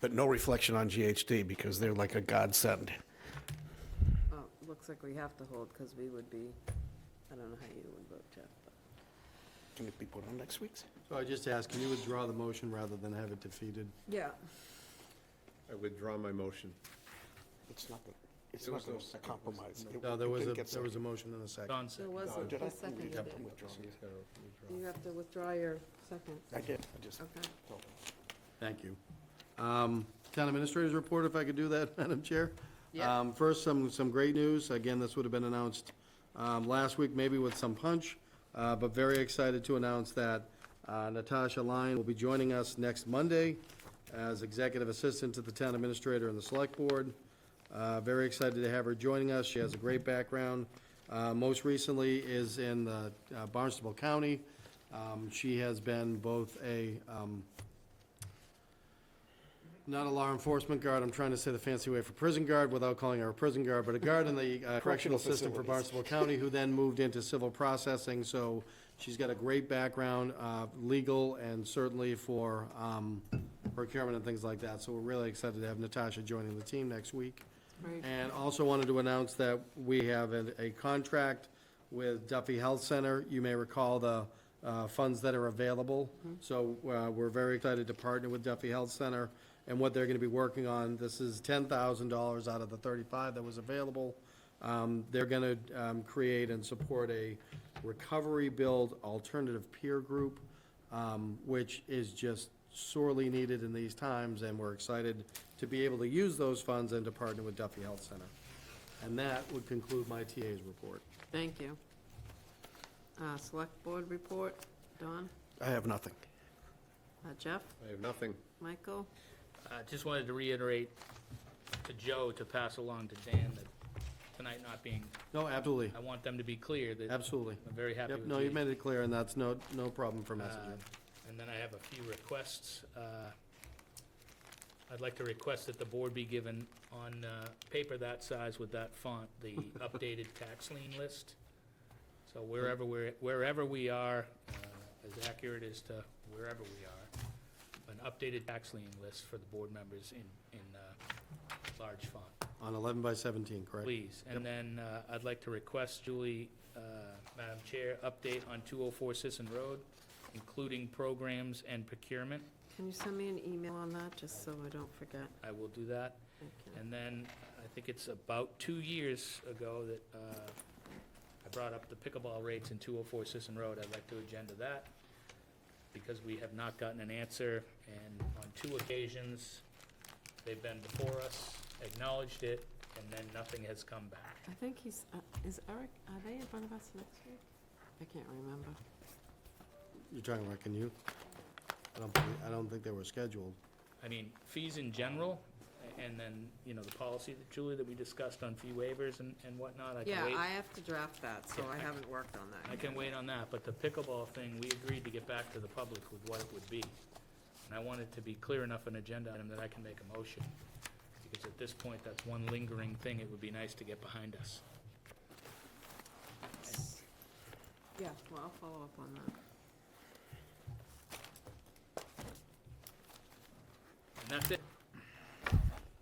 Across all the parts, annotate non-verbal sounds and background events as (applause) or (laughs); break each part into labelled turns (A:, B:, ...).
A: But no reflection on GHD because they're like a godsend.
B: Well, Oh, it looks like we have to hold because we would be, I don't know how you would vote, Jeff. but-
A: Can it be put on next week's?
C: So I just ask, can you withdraw the motion rather than have it defeated?
B: Yeah.
D: I withdraw my motion.
A: It's nothing. It's
D: There
A: not
D: was no
A: a compromise. It-
C: No, there
A: it
C: was a,
A: didn't get
C: there was a
A: seconded.
C: motion and a second.
E: Don
B: There
E: said,
B: was,
A: Oh,
B: a-
A: did I?
B: who seconded
A: Yeah,
B: it?
A: I'm withdrawing.
D: Just gotta withdraw.
B: You have to withdraw your second.
A: I did, I just
B: Okay.
A: told them.
C: Thank you. Um, Town Administrator's Report, if I could do that, (laughs) Madam Chair?
B: Yeah.
C: Um, First, some, some great news. Again, this would have been announced um, last week, maybe with some punch, uh, but very excited to announce that uh, Natasha Lyon will be joining us next Monday as Executive Assistant to the Town Administrator and the Select Board. Uh, Very excited to have her joining us. She has a great background. Uh, Most recently is in uh, Barnstable County. Um, She has been both a um, not a law enforcement guard, I'm trying to say the fancy way for prison guard without calling her a prison guard, but a guard in the uh, correctional system for Barnstable County, who then moved into civil processing, so she's got a great background, uh, legal and certainly for um, procurement and things like that, so we're really excited to have Natasha joining the team next week.
B: Right.
C: And also wanted to announce that we have a, a contract with Duffy Health Center. You may recall the, uh, funds that are available. So, uh, we're very excited to partner with Duffy Health Center and what they're gonna be working on. This is ten thousand dollars out of the thirty-five that was available. Um, they're gonna, um, create and support a recovery build alternative peer group, um, which is just sorely needed in these times, and we're excited to be able to use those funds and to partner with Duffy Health Center. And that would conclude my TA's report.
B: Thank you. Uh, Select Board report, Don,
A: I have nothing.
B: uh, Jeff,
D: I have nothing.
B: Michael?
E: uh, just wanted to reiterate to Joe to pass along to Dan that tonight not being,
C: No, absolutely,
E: I want them to be clear that I'm
C: absolutely.
E: very happy
C: Yep,
E: with
C: no, you
E: these.
C: made it clear, and that's no, no problem for messaging.
E: Uh, And then I have a few requests. Uh, I'd like to request that the board be given on uh, paper that size with that font, the updated tax lien list. So wherever we're, wherever we are, uh, as accurate as to wherever we are, an updated tax lien list for the board members in, in uh, large font.
C: On eleven by seventeen, correct?
E: Please, and then uh, I'd like to request Julie, uh, Madam Chair, update on 204 Sisson Road, including programs and procurement.
B: Can you send me an email on that, just so I don't forget?
E: I will do that.
B: Thank you.
E: And then, I think it's about two years ago that uh, I brought up the pickleball rates in 204 Sisson Road. I'd like to agenda that, because we have not gotten an answer, and on two occasions, they've been before us, acknowledged it, and then nothing has come back.
B: I think he's, uh, is Eric, are they in front of us next week? I can't remember.
C: You're talking about, can you? I don't, believe- I don't think they were scheduled.
E: I mean, fees in general, a- and then, you know, the policy that Julie, that we discussed on fee waivers and, and whatnot, I can
B: Yeah,
E: wait.
B: I have to draft that, so
E: Yeah,
B: I
E: I-
B: haven't worked on that.
E: I can wait on that, but the pickleball thing, we agreed to get back to the public with what it would be. And I want it to be clear enough an agenda item that I can make a motion, because at this point, that's one lingering thing it would be nice to get behind us.
B: Yeah, well, I'll follow up on that.
E: And that's it.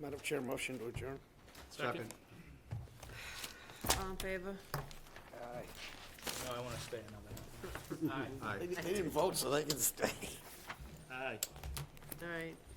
A: Madam Chair, motion to adjourn.
B: All in favor?
A: Aye.
E: No, I want to stay another. Aye.
D: Aye.
A: They didn't vote, so they can stay.
E: Aye.
B: All right,